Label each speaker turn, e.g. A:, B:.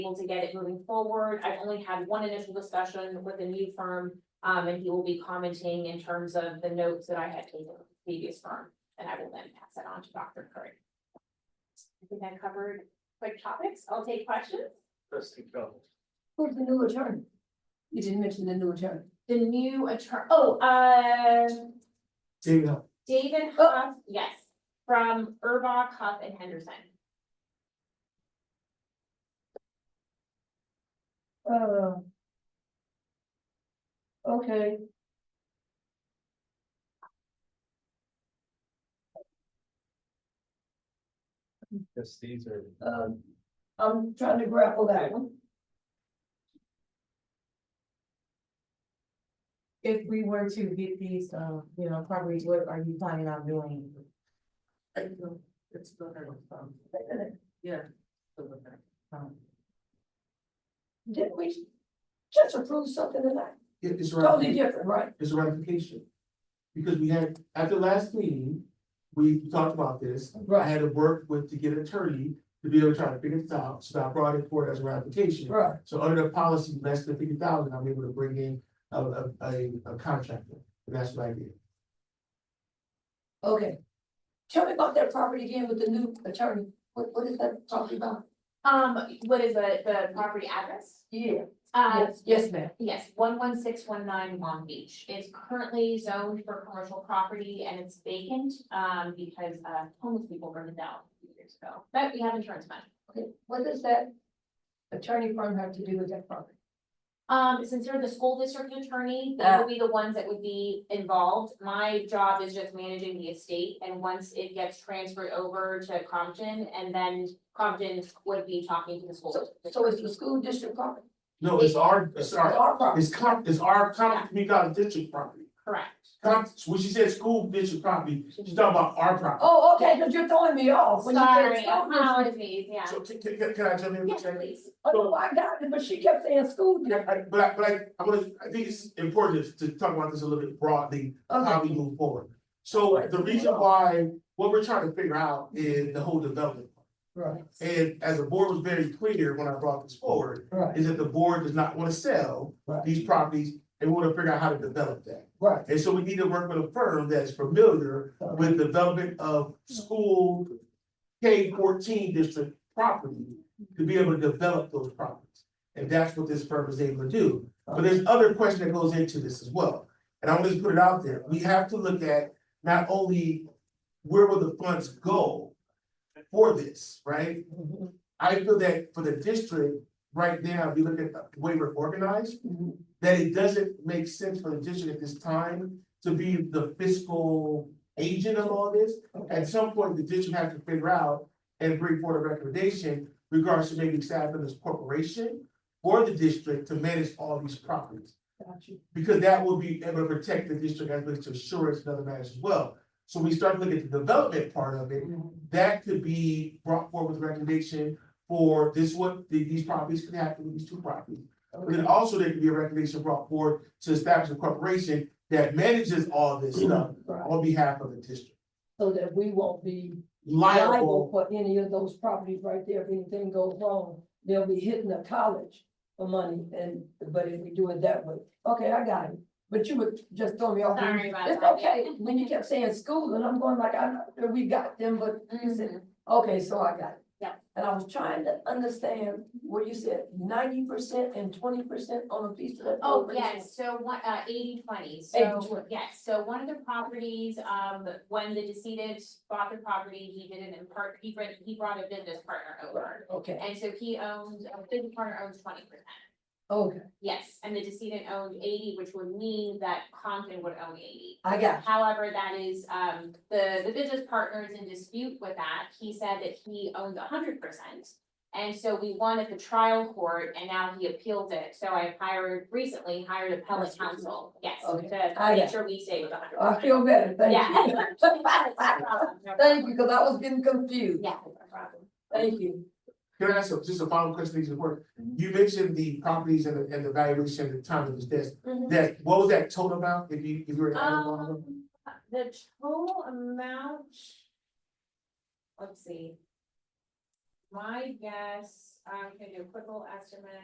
A: able to get it moving forward. I've only had one initial discussion with a new firm. Um, and he will be commenting in terms of the notes that I had taken with the previous firm, and I will then pass that on to Dr. Curry. I think I covered quick topics. I'll take questions.
B: Trustee Jones.
C: Who's the new attorney? You didn't mention the new attorney.
A: The new attorney, oh, uh,
B: Dino.
A: David Huff, yes, from Urbach, Huff and Henderson.
C: Uh. Okay.
B: Yes, these are.
C: Um, I'm trying to grapple that one.
D: If we were to get these, um, you know, properties, what are you planning on doing? It's better with them, yeah. um?
C: Didn't we just approve something tonight?
E: It is
C: Totally
E: ratification,
C: different, right?
E: it's ratification. Because we had, at the last meeting, we talked about this. I had to work with to get an attorney to be able to try to figure this out, so I brought it forward as a ratification.
C: Right.
E: So under the policy, less than fifty thousand, I'm able to bring in a, a, a, a contractor, and that's what I did.
C: Okay. Tell me about that property again with the new attorney. What, what is that property about?
A: Um, what is the, the property address?
C: Yeah.
A: Uh,
C: Yes, yes, ma'am.
A: yes, one one six one nine Long Beach. It's currently zoned for commercial property and it's vacant, um, because, uh, homeless people burned it down a few years ago. But we have insurance money.
C: Okay, what does that attorney firm have to do with that property?
A: Um, since they're the school district attorney, they would be the ones that would be involved. My job is just managing the estate. And once it gets transferred over to Compton and then Compton would be talking to the school.
C: So,
A: district.
C: so it's the school district property?
E: No, it's our, it's our,
C: Our property.
E: it's comp, it's our comp, community college district property.
A: Correct.
E: Comp, when she said school district property, she's talking about our property.
C: Oh, okay, because you're throwing me off. when you said
A: Sorry,
C: school district.
A: apologies, yeah.
E: So can, can, can I jump in?
A: Yes, please.
C: Oh, no, I got it, but she kept saying school
E: Yeah,
C: district.
E: I- but I, but I, I'm gonna, I think it's important to talk about this a little bit broadly, how we
C: Okay,
E: move forward. So the reason why, what we're trying to figure out is the whole development.
C: right,
E: And as the board was very clear when I brought this forward,
C: right,
E: is that the board does not wanna sell
C: right,
E: these properties. They wanna figure out how to develop that.
C: right.
E: And so we need to work with a firm that's familiar with development of school K fourteen district property to be able to develop those properties. And that's what this firm is able to do. But there's other question that goes into this as well. And I'm just put it out there. We have to look at not only where will the funds go for this, right?
C: Mhm,
E: I feel that for the district, right now, if you look at the way we're organized,
C: mhm.
E: that it doesn't make sense for the district at this time to be the fiscal agent of all this.
C: Okay,
E: At some point, the district has to figure out and bring forward a recommendation regards to maybe establishing this corporation or the district to manage all these properties.
C: got you.
E: Because that will be able to protect the district as well as to insurance and other matters as well. So we start looking at the development part of it,
C: Mm-hmm.
E: that could be brought forward with a recommendation for this what, these properties could happen with these two properties. But then
C: Okay,
E: also there could be a recommendation brought forward to establish a corporation that manages all this stuff
C: Mm-hmm. right.
E: on behalf of the district.
C: So that we won't be liable
E: Liable,
C: for any of those properties right there. If anything goes wrong, they'll be hitting the college for money and, but if we do it that way. Okay, I got it. But you would just throw me off.
A: Sorry about
C: It's
A: that.
C: okay. When you kept saying school and I'm going like, I know that we got them, but
A: Mm-hmm.
C: you said Okay, so I got it.
A: Yeah.
C: And I was trying to understand what you said, ninety percent and twenty percent on a piece of that.
A: Oh,
C: property.
A: yes, so one, uh, eighty twenty,
C: 80/20.
A: so, yes, so one of the properties, um, when the decedent bought the property, he did an impart, he brought, he brought a business partner over.
C: Okay,
A: And so he owns, a business partner owns twenty percent,
C: okay,
A: yes, and the decedent owned eighty, which would mean that Compton would own eighty.
C: I got
A: However, that is, um, the, the business partner is in dispute with that. He said that he owned hundred percent. And so we won at the trial court and now he appealed it. So I hired, recently hired appellate
C: That's what you-
A: counsel, yes,
C: Okay.
A: to
C: I
A: make
C: got
A: sure we stay with
C: you.
A: hundred
C: I
A: percent.
C: feel better, thank you.
A: Yeah. No problem, no
C: Thank
A: problem.
C: you, because I was getting confused.
A: Yeah, no problem.
C: Thank you.
E: can I ask a- just a final question, these work?
C: Mm-hmm.
E: You mentioned the properties and the, and the valuation at the time of this desk,
C: Mm-hmm.
A: Mhm.
E: that, what was that total amount, if you, if you were to add them all up?
A: Um, the total amount. Let's see. My guess, I'm gonna do a quick little estimate.